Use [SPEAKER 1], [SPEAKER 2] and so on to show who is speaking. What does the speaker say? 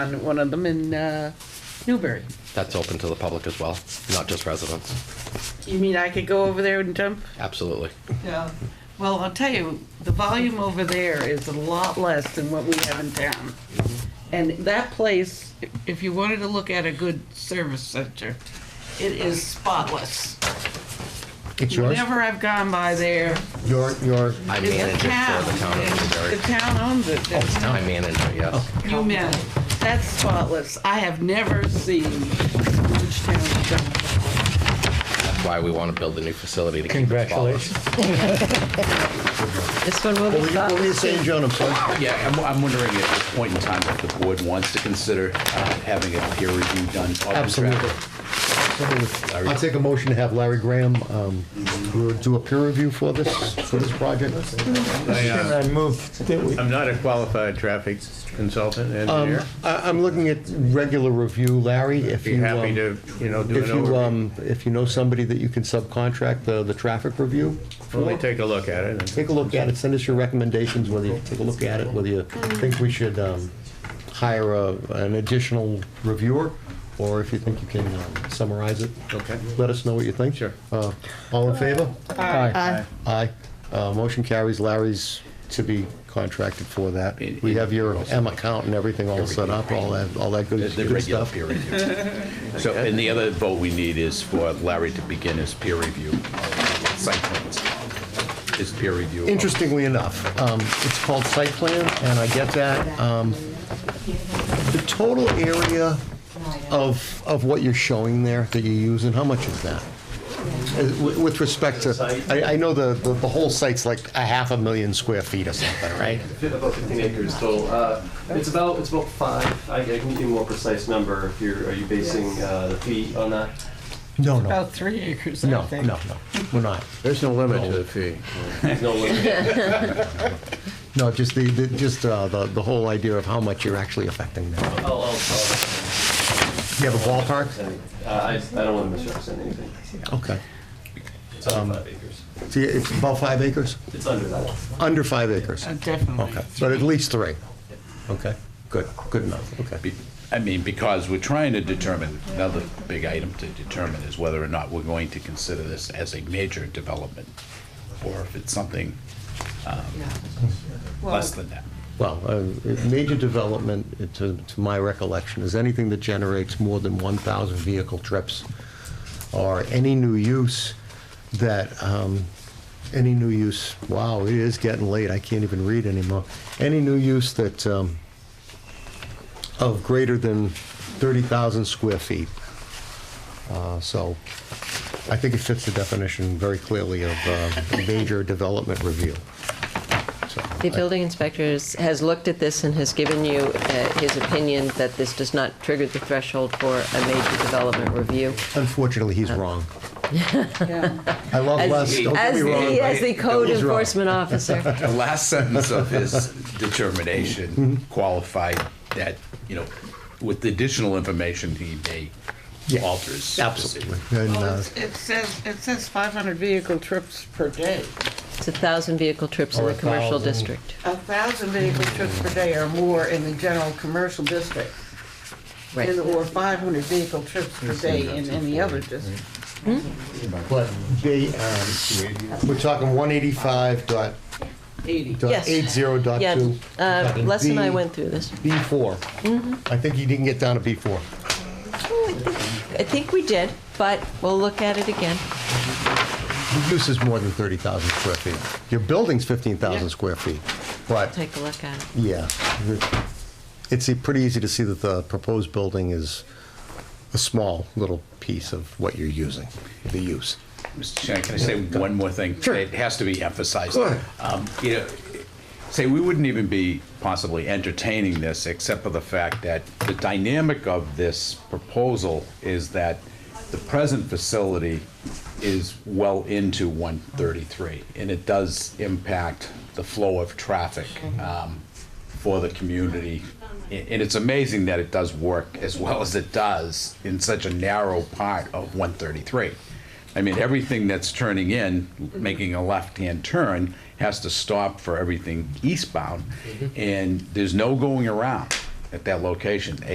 [SPEAKER 1] on one of them in uh, Newbury.
[SPEAKER 2] That's open to the public as well, not just residents.
[SPEAKER 1] You mean I could go over there and dump?
[SPEAKER 2] Absolutely.
[SPEAKER 1] Yeah. Well, I'll tell you, the volume over there is a lot less than what we have in town. And that place, i- if you wanted to look at a good service center, it is spotless.
[SPEAKER 3] It's yours?
[SPEAKER 1] Whenever I've gone by there,
[SPEAKER 3] Your, your,
[SPEAKER 2] I
[SPEAKER 1] it's
[SPEAKER 2] manage it for
[SPEAKER 1] town.
[SPEAKER 2] the town Oh.
[SPEAKER 1] It's-
[SPEAKER 2] of Newbury. Oh,
[SPEAKER 1] The town owns it. There's no-
[SPEAKER 2] I manage it, yes.
[SPEAKER 1] You men, that's spotless. I have never seen which town dump.
[SPEAKER 2] That's why we want to build a new facility to keep it spotless.
[SPEAKER 3] congratulations.
[SPEAKER 4] This one will be
[SPEAKER 3] What were you saying, Joan? I'm sorry.
[SPEAKER 5] Yeah, I'm, I'm wondering at this point in time if the board wants to consider uh, having a peer review done. of the
[SPEAKER 3] Absolutely.
[SPEAKER 5] draft.
[SPEAKER 3] Absolutely. I'll take a motion to have Larry Graham um, do a peer review for this, for this project.
[SPEAKER 6] I, uh,
[SPEAKER 7] I moved that we,
[SPEAKER 6] I'm not a qualified traffic consultant
[SPEAKER 3] Um,
[SPEAKER 6] engineer.
[SPEAKER 3] I- I'm looking at regular review, Larry, if
[SPEAKER 6] Be
[SPEAKER 3] you.
[SPEAKER 6] happy
[SPEAKER 3] um,
[SPEAKER 6] to, you know, do
[SPEAKER 3] If
[SPEAKER 6] an
[SPEAKER 3] you,
[SPEAKER 6] overview.
[SPEAKER 3] um, if you know somebody that you can subcontract the, the traffic review,
[SPEAKER 6] Only take a look at it. and-
[SPEAKER 3] take a look at it, send us your recommendations, whether you take a look at it, whether you think we should um, hire a- an additional reviewer, or if you think you can um, summarize it.
[SPEAKER 6] Okay.
[SPEAKER 3] Let us know what you think.
[SPEAKER 6] Sure.
[SPEAKER 3] Uh, All in favor? Aye. Aye. Uh, Motion carries. Larry's to be contracted for that. We have your M account and everything all set up, all that, all that
[SPEAKER 5] The
[SPEAKER 3] good
[SPEAKER 5] the
[SPEAKER 3] good
[SPEAKER 5] regular
[SPEAKER 3] stuff.
[SPEAKER 5] peer review. So, and the other vote we need is for Larry to begin his peer review of site plans. His peer review. of-
[SPEAKER 3] Interestingly enough, um, it's called site plan, and I get that. Um, The total area of, of what you're showing there that you use, and how much is that? Uh, wi- With respect to, I, I know the, the the whole site's like a half a million square feet or something, right?
[SPEAKER 8] About 15 acres total. Uh, It's about, it's about five. I I can give you a more precise number if you're, are you basing uh, the fee on that?
[SPEAKER 3] No, no,
[SPEAKER 1] About three acres, I
[SPEAKER 3] no, no,
[SPEAKER 1] think.
[SPEAKER 3] no, we're not.
[SPEAKER 6] There's no limit to the fee.
[SPEAKER 8] There's no limit.
[SPEAKER 3] No, just the, the- just uh, the, the whole idea of how much you're actually affecting them.
[SPEAKER 8] I'll- I'll- I'll-
[SPEAKER 3] You have a ballpark?
[SPEAKER 8] uh, I I don't want to misrepresent anything.
[SPEAKER 3] Okay.
[SPEAKER 8] It's under five acres.
[SPEAKER 3] See, it's about five acres?
[SPEAKER 8] It's under that.
[SPEAKER 3] Under five acres?
[SPEAKER 1] Uh, Definitely.
[SPEAKER 3] Okay, but at least three. Okay, good, good enough, okay.
[SPEAKER 5] Be- I mean, because we're trying to determine, another big item to determine is whether or not we're going to consider this as a major development, or if it's something less than that.
[SPEAKER 3] Well, uh, major development, uh, to, to my recollection, is anything that generates more than 1,000 vehicle trips, or any new use that, um, any new use, wow, it is getting late, I can't even read anymore. Any new use that, um, of greater than 30,000 square feet. Uh, So I think it fits the definition very clearly of uh, major development review. So,
[SPEAKER 4] The
[SPEAKER 3] I-
[SPEAKER 4] building inspector is- has looked at this and has given you uh, his opinion that this does not trigger the threshold for a major development review.
[SPEAKER 3] Unfortunately, he's wrong.
[SPEAKER 1] Yeah.
[SPEAKER 3] I love
[SPEAKER 4] As-
[SPEAKER 3] Les, don't get
[SPEAKER 4] As
[SPEAKER 3] me wrong.
[SPEAKER 4] the,
[SPEAKER 3] but-
[SPEAKER 4] as the code
[SPEAKER 3] He's wrong.
[SPEAKER 4] enforcement officer.
[SPEAKER 5] The last sentence of his determination qualified that, you know, with the additional information, he may
[SPEAKER 3] Yeah,
[SPEAKER 5] alter his
[SPEAKER 3] Absolutely.
[SPEAKER 5] decision.
[SPEAKER 3] And,
[SPEAKER 1] Well,
[SPEAKER 3] uh,
[SPEAKER 1] it's- it says, it says 500 vehicle trips per day.
[SPEAKER 4] It's a thousand vehicle trips in
[SPEAKER 3] Or
[SPEAKER 4] the
[SPEAKER 3] a
[SPEAKER 4] commercial
[SPEAKER 3] thousand.
[SPEAKER 4] district.
[SPEAKER 1] A 1,000 vehicle trips per day or more in the general commercial district, and
[SPEAKER 4] Right.
[SPEAKER 1] or 500 vehicle trips per day in any other district.
[SPEAKER 3] But they, um, we're talking one eighty-five dot,
[SPEAKER 1] 80.
[SPEAKER 3] dot
[SPEAKER 4] Yes.
[SPEAKER 3] eight zero dot
[SPEAKER 4] Yeah,
[SPEAKER 3] two.
[SPEAKER 4] uh, Les and I went through this.
[SPEAKER 3] B four.
[SPEAKER 4] Mm-hmm.
[SPEAKER 3] I think he didn't get down to B four.
[SPEAKER 4] I think we did, but we'll look at it again.
[SPEAKER 3] The use is more than thirty thousand square feet. Your building's fifteen thousand
[SPEAKER 1] Yeah.
[SPEAKER 3] square feet, but,
[SPEAKER 4] Take a look at it.
[SPEAKER 3] yeah. the- It's uh, pretty easy to see that the proposed building is a small little piece of what you're using, the use.
[SPEAKER 5] Mr. Chairman, can I say one more thing?
[SPEAKER 3] Sure.
[SPEAKER 5] It has to be emphasized.
[SPEAKER 3] Go ahead.
[SPEAKER 5] Um, You know, say, we wouldn't even be possibly entertaining this, except for the fact that the dynamic of this proposal is that the present facility is well into 133, and it does impact the flow of traffic um, for the community. A- And it's amazing that it does work as well as it does in such a narrow part of 133. I mean, everything that's turning in, making a left-hand turn, has to stop for everything eastbound, and there's no going around at that location.